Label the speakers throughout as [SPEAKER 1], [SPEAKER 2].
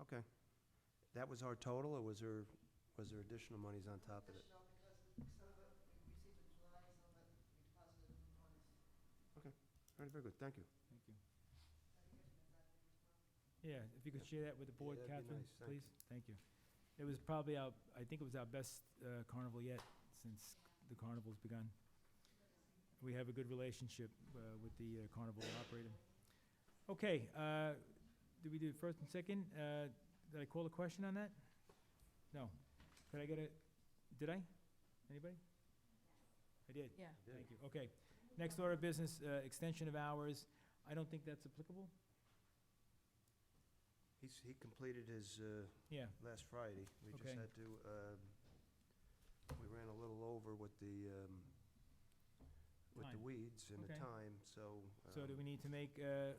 [SPEAKER 1] Okay. That was our total, or was there, was there additional monies on top of it?
[SPEAKER 2] Additional because we- some of it we received in July, some of it we deposited in August.
[SPEAKER 1] Okay, all right, very good, thank you.
[SPEAKER 3] Thank you.
[SPEAKER 2] I think it's been that year as well.
[SPEAKER 3] Yeah, if you could share that with the board,
[SPEAKER 1] that'd be
[SPEAKER 3] Catherine,
[SPEAKER 1] nice. Thank
[SPEAKER 3] please. Thank you. It was probably our, I think it was our best uh, carnival yet since the carnival's begun. We have a good relationship uh, with the uh, carnival operator. Okay, uh, did we do first and second? Uh, Did I call a question on that? No. Could I get a, did I? Anybody? I did.
[SPEAKER 4] Yeah.
[SPEAKER 3] Thank you. Okay. Next order of business, uh, extension of hours. I don't think that's applicable.
[SPEAKER 1] He's, he completed his, uh,
[SPEAKER 3] Yeah.
[SPEAKER 1] last Friday. We just
[SPEAKER 3] Okay.
[SPEAKER 1] had to, um, we ran a little over with the, um, with the
[SPEAKER 3] Time.
[SPEAKER 1] weeds and the
[SPEAKER 3] Okay.
[SPEAKER 1] time, so.
[SPEAKER 3] So
[SPEAKER 1] um,
[SPEAKER 3] do we need to make uh,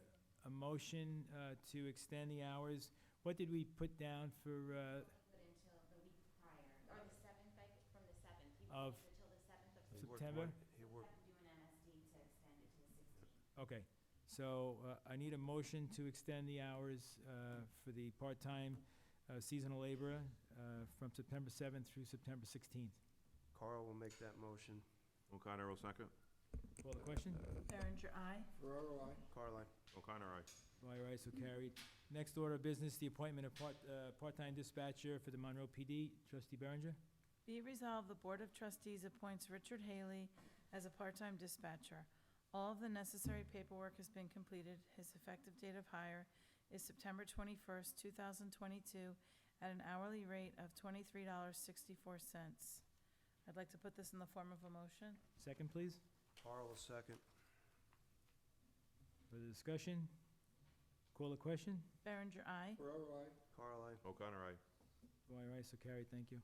[SPEAKER 3] a motion uh, to extend the hours? What did we put down for, uh,
[SPEAKER 5] But until the week prior, or the seventh, like, from the seventh. He
[SPEAKER 3] Of-
[SPEAKER 5] would leave Until the seventh of
[SPEAKER 1] he worked
[SPEAKER 3] September?
[SPEAKER 1] one- He
[SPEAKER 5] We'll
[SPEAKER 1] worked,
[SPEAKER 5] have to do an MSD to extend it to the sixteenth.
[SPEAKER 3] uh, okay, so uh, I need a motion to extend the hours uh, for the part-time uh, seasonal laborer uh, from September 7th through September 16th.
[SPEAKER 1] Carl will make that motion.
[SPEAKER 6] O'Connor, will second.
[SPEAKER 3] Call the question?
[SPEAKER 4] Berenger, aye.
[SPEAKER 1] Caroline,
[SPEAKER 6] O'Connor, aye.
[SPEAKER 3] By rights so carried. Next order of business, the appointment of part, uh, part-time dispatcher for the Monroe PD. Trustee Berenger?
[SPEAKER 4] Be it resolved, the Board of Trustees appoints Richard Haley as a part-time dispatcher. All of the necessary paperwork has been completed. His effective date of hire is September twenty-first, two thousand twenty-two, at an hourly rate of twenty-three dollars sixty-four cents. I'd like to put this in the form of a motion.
[SPEAKER 3] Second, please.
[SPEAKER 1] Carl will second.
[SPEAKER 3] Further discussion? Call the question?
[SPEAKER 4] Berenger, aye.
[SPEAKER 1] Caroline,
[SPEAKER 6] O'Connor, aye.
[SPEAKER 3] By right, so carried, thank you.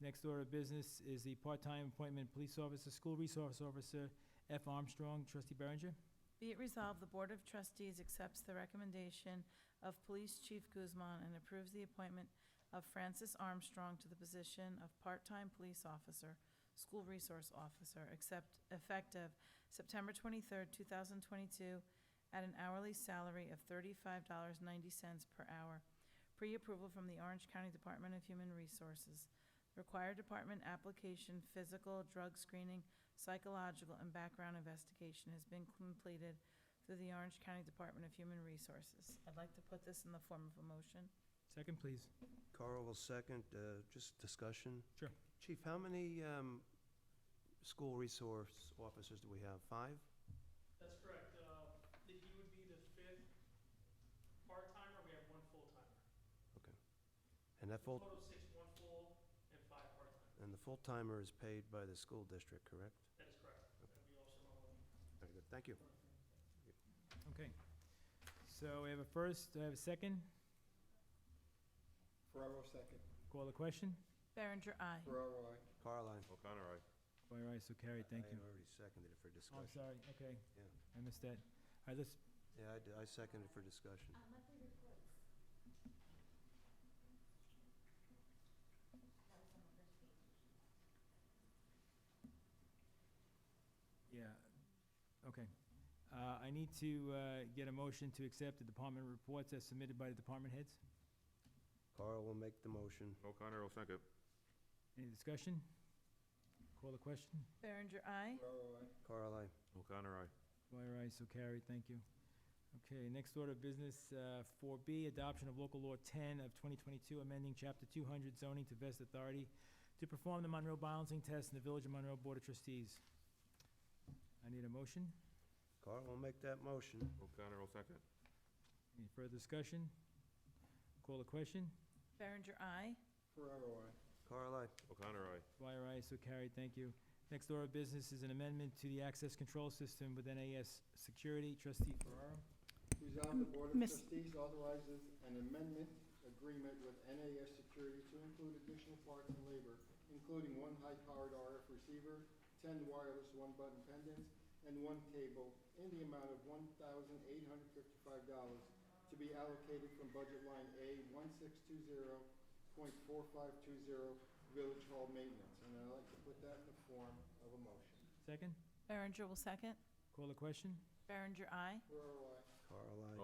[SPEAKER 3] Next order of business is the part-time appointment, police officer, school resource officer, F. Armstrong, trustee Berenger.
[SPEAKER 4] Be it resolved, the Board of Trustees accepts the recommendation of Police Chief Guzman and approves the appointment of Francis Armstrong to the position of part-time police officer, school resource officer, except effective September twenty-third, two thousand twenty-two, at an hourly salary of thirty-five dollars ninety cents per hour, pre-approval from the Orange County Department of Human Resources. Required department application, physical, drug screening, psychological and background investigation has been completed through the Orange County Department of Human Resources. I'd like to put this in the form of a motion.
[SPEAKER 3] Second, please.
[SPEAKER 1] Carl will second, uh, just discussion.
[SPEAKER 3] Sure.
[SPEAKER 1] Chief, how many, um, school resource officers do we have? Five?
[SPEAKER 7] That's correct. Uh, That he would be the fifth part-timer, we have one full-timer.
[SPEAKER 1] And that full,
[SPEAKER 7] Total of six, one full and five part-timers.
[SPEAKER 1] and the full-timer is paid by the school district, correct?
[SPEAKER 7] That is correct. And we also own
[SPEAKER 1] Very good, thank you.
[SPEAKER 3] Okay. So we have a first, I have a second.
[SPEAKER 8] Ferraro second.
[SPEAKER 3] Call the question?
[SPEAKER 4] Berenger, aye.
[SPEAKER 8] Ferraro, aye.
[SPEAKER 1] Caroline?
[SPEAKER 6] O'Connor, aye.
[SPEAKER 3] By right, so carried, thank you.
[SPEAKER 1] I already seconded it for
[SPEAKER 3] Oh, I'm
[SPEAKER 1] discussion.
[SPEAKER 3] sorry, okay.
[SPEAKER 1] Yeah.
[SPEAKER 3] I missed that. All right, let's,
[SPEAKER 1] Yeah, I d- I seconded for discussion.
[SPEAKER 5] Uh, monthly reports. That was on the first page.
[SPEAKER 3] yeah, okay. Uh, I need to uh, get a motion to accept the department reports as submitted by the department heads.
[SPEAKER 1] Carl will make the motion.
[SPEAKER 6] O'Connor, will second.
[SPEAKER 3] Any discussion? Call the question?
[SPEAKER 4] Berenger, aye.
[SPEAKER 8] Ferraro, aye.
[SPEAKER 1] Carl, I,
[SPEAKER 6] O'Connor, aye.
[SPEAKER 3] By your eyes, so carried, thank you. Okay, next order of business, uh, four B, adoption of local law ten of twenty twenty-two, amending chapter two hundred zoning to vest authority to perform the Monroe balancing test in the Village of Monroe Board of Trustees. I need a motion.
[SPEAKER 1] Carl will make that motion.
[SPEAKER 6] O'Connor, will second.
[SPEAKER 3] Any further discussion? Call the question?
[SPEAKER 4] Berenger, aye.
[SPEAKER 8] Ferraro, aye.
[SPEAKER 1] Carl, I,
[SPEAKER 6] O'Connor, aye.
[SPEAKER 3] By your eyes, so carried, thank you. Next order of business is an amendment to the access control system with NAS security. Trustee Ferraro?
[SPEAKER 8] Resolve the Board of
[SPEAKER 4] Miss-
[SPEAKER 8] Trustees authorizes an amendment agreement with NAS Security to include additional parts and labor, including one high-powered RF receiver, ten wireless one-button pendants, and one cable, in the amount of one thousand eight hundred fifty-five dollars to be allocated from budget line A one six two zero point four five two zero, Village Hall Maintenance. And I'd like to put that in the form of a motion.
[SPEAKER 3] Second?
[SPEAKER 4] Berenger will second.
[SPEAKER 3] Call the question?
[SPEAKER 4] Berenger, aye.
[SPEAKER 8] Ferraro, aye.
[SPEAKER 1] Carl, I.